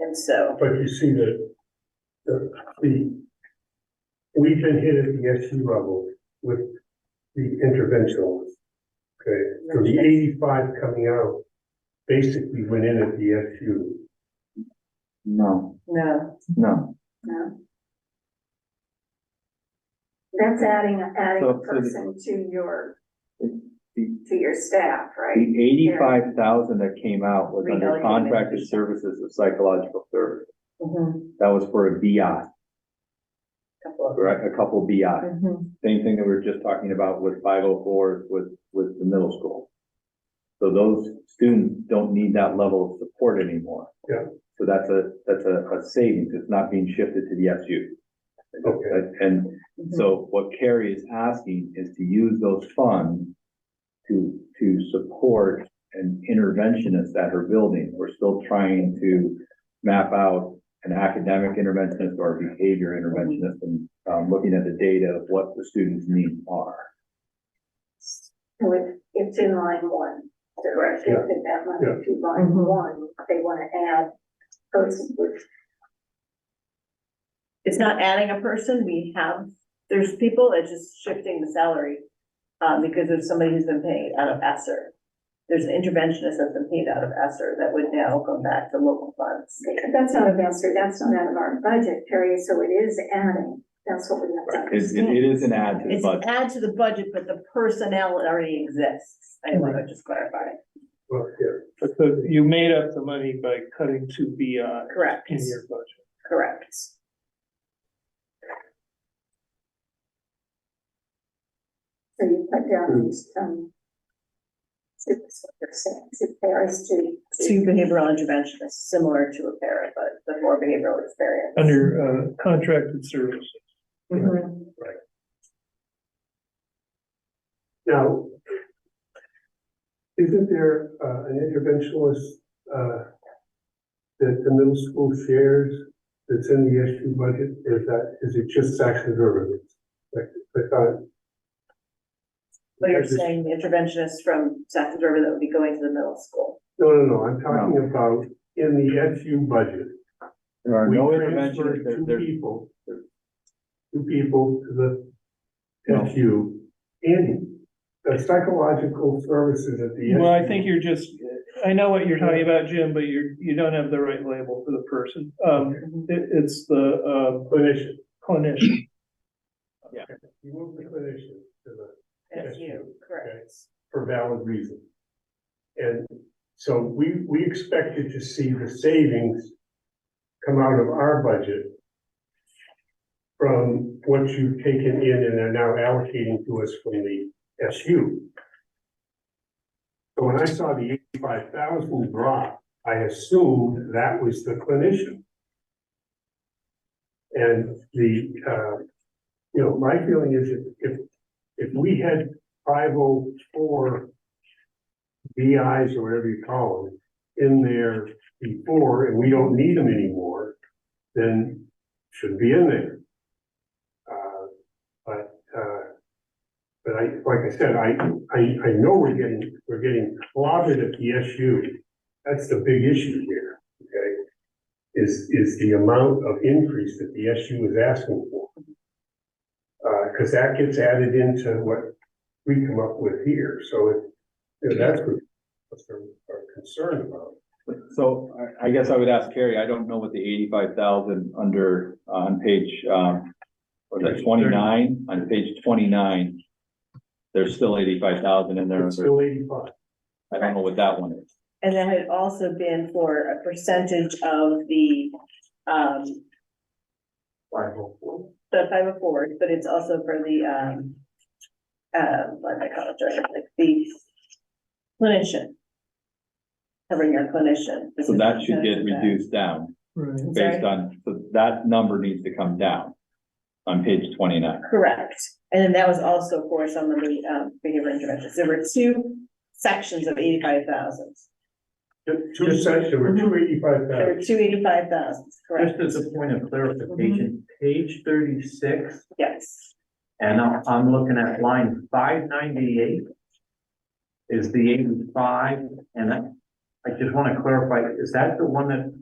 And so, But you see that, the, the, we've been hit at the SU level with the interventionalists. Okay, so the eighty-five coming out basically went in at the SU. No, no, no. No. That's adding, adding So, a so the- person to your, The to your staff, right? eighty-five thousand that came out was under Regarding- contracted services of psychological service. mhm, That was for a BI, couple of. right, a couple BI. mhm, Same thing that we were just talking about with five oh four with, with the middle school. So those students don't need that level of support anymore. Yeah. So that's a, that's a, a savings. It's not being shifted to the SU. Okay. And Mm-hmm. mhm. So what Carrie is asking is to use those funds to, to support an interventionist at her building. We're still trying to map out an academic interventionist or a behavior interventionist and, um, looking at the data of what the students' needs are. So it- it's in line one, so we're Yeah. shifting that Yeah. money to line Mhm. one, they wanna add person with It's not adding a person, we have, there's people, it's just shifting the salary. Um, because there's somebody who's been paid out of ESSER. There's an interventionist that's been paid out of ESSER that would now come back to local funds. That's not a master, that's not out of our budget, Terry, so it is adding, that's what we have to It's, it understand. it is an add to the It's budget. add to the budget, but the personnel already exists, I want to just clarify. Well, yeah, But the, you made up the money by cutting to BI Correct, in your budget. correct. So you put down, um, so that's what you're saying, so there is to. Two behavioral interventionists, similar to a para, but the more behavioral experience. Under, uh, contracted services. Mhm. now, isn't there, uh, an interventionalist, uh, that the middle school shares that's in the SU budget, is that, is it just Saxon River? Like, I thought, But you're Yeah, just- saying the interventionist from Saxon River that would be going to the middle school. no, no, no, I'm talking about in the SU budget. There are We no transferred interventionists, there, two there's people. there- Two people to the No. FU in the psychological services at the. Well, I SU. think you're just, I know what you're talking about, Jim, but you're, you don't have the right label for the person. Um, it, it's the, Clinician. uh, clinician. You move the clinician to the, That's Yes. you, correct. for valid reason. And so we, we expected to see the savings come out of our budget from what you've taken in and are now allocating to us from the SU. So when I saw the eighty-five thousand drop, I assumed that was the clinician. And the, uh, you know, my feeling is if, if, if we had five oh four BIs or whatever you call them in there before, and we don't need them anymore, then should be in there. Uh, But, uh, but I, like I said, I, I, I know we're getting, we're getting clobbered at the SU. That's the big issue here, okay? Is, is the amount of increase that the SU is asking for. Uh, cause that gets added into what we come up with here, so it, you know, that's what, what's our, our concern about. So I, I guess I would ask Carrie, I don't know what the eighty-five thousand under, uh, on page, um, was that twenty-nine? On page twenty-nine, there's still eighty-five thousand in there. It's still eighty-five. I don't know what that one is. And that had also been for a percentage of the, um, Five oh four. the five oh four, but it's also for the, um, uh, what do I call it, like the clinician. Covering your clinician. So that should Percentage get of that. reduced down Right. based on, so that number needs to come down on page twenty-nine. Correct, and then that was also for some of the, um, behavior interventions, there were two sections of eighty-five thousand. Two cents, there were two eighty-five There were thousand. two eighty-five thousands, correct? Just as a point of clarification, page thirty-six, Yes, and I'm, I'm looking at line five ninety-eight is the eighty-five, and I, I just want to clarify, is that the one that